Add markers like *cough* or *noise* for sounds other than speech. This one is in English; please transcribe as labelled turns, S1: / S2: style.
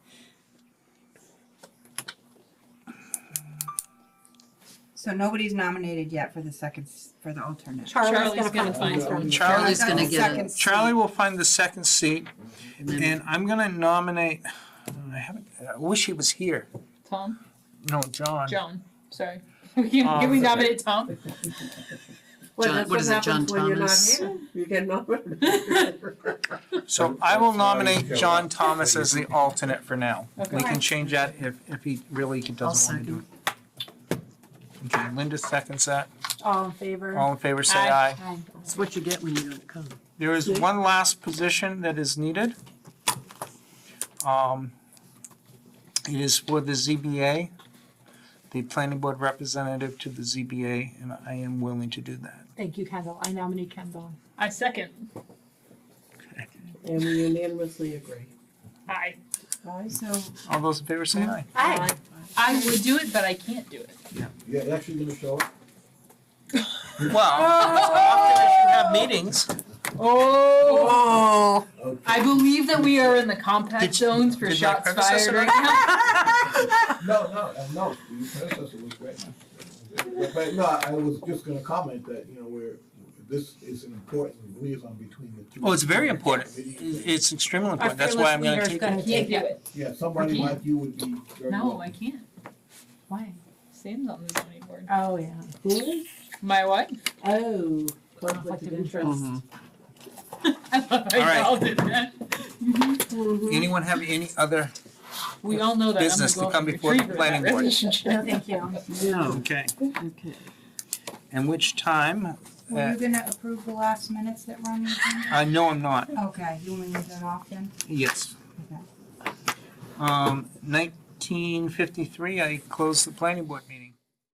S1: So nobody's nominated yet for the second, s- for the alternate.
S2: Charlie's
S3: Charlie's
S2: gonna
S3: gonna
S2: find
S3: find
S2: someone.
S3: it.
S4: Charlie's
S1: I've Oh, got
S4: gonna
S1: the
S4: get it.
S1: second seat.
S5: Charlie will find the second seat,
S4: And then
S5: and I'm gonna nominate, I haven't, I wish he was here.
S2: Tom,
S5: No, John.
S2: Joan, sorry. *laughs* Can we
S5: Um,
S2: nominate Tom?
S4: John- what is it, John Thomas?
S3: You get nominated.
S5: So I will nominate John Thomas as the alternate for now. We
S2: Okay.
S5: can change that if, if he really doesn't want to do it. Okay, Linda seconds that.
S3: All in favor?
S5: All in favor, say aye.
S4: that's what you get when you don't come.
S5: There is one last position that is needed. Um, It is for the ZBA, the planning board representative to the ZBA, and I am willing to do that.
S3: Thank you, Kendall. I nominate Kendall.
S2: I second.
S6: And we unanimously agree.
S2: I,
S1: So
S5: All those in favor say aye.
S3: Aye.
S2: I would do it, but I can't do it.
S7: Yeah, actually gonna
S2: *laughs*
S7: show up.
S5: Well, it's often I should have meetings.
S2: Oh,
S3: Oh.
S7: Okay.
S2: I believe that we are in the compact
S5: Did you-
S2: zones for
S5: did my
S2: shots
S5: predecessor
S2: fired right
S5: *laughs*
S2: now.
S7: No, no, uh, no, your predecessor was great. But no, I was just gonna comment that, you know, we're, this is an important liaison between the two.
S5: Oh, it's very important. It's extremely
S3: Our
S5: important. That's why
S3: fearless
S5: I'm gonna
S3: leader's
S5: take it.
S3: gonna
S2: I can't
S3: take
S2: do
S3: it.
S2: it.
S7: Yeah, somebody
S2: I can't.
S7: like you would be very
S2: No, I
S7: welcome.
S2: can't.
S3: Why?
S2: Sam's on the zoning board.
S3: Oh, yeah.
S6: Who?
S2: My what? *laughs*
S6: Oh,
S3: Conflict
S6: conflict
S3: of
S6: of interest.
S2: I love how
S5: All right.
S2: y'all did that.
S5: Anyone have any other?
S2: We all know that. I'm the
S5: Business to
S2: golden
S5: come before
S2: retriever
S5: the
S2: in that
S5: planning board.
S2: relationship. *laughs*
S3: No, thank you.
S4: No,
S5: Okay.
S4: okay.
S5: And which time?
S4: Uh,
S5: Uh,
S1: were you gonna approve the last minutes that were on the agenda?
S5: I know I'm not.
S1: Okay, you want me to leave that off then?
S5: Yes. Um, nineteen fifty-three, I closed the planning board meeting.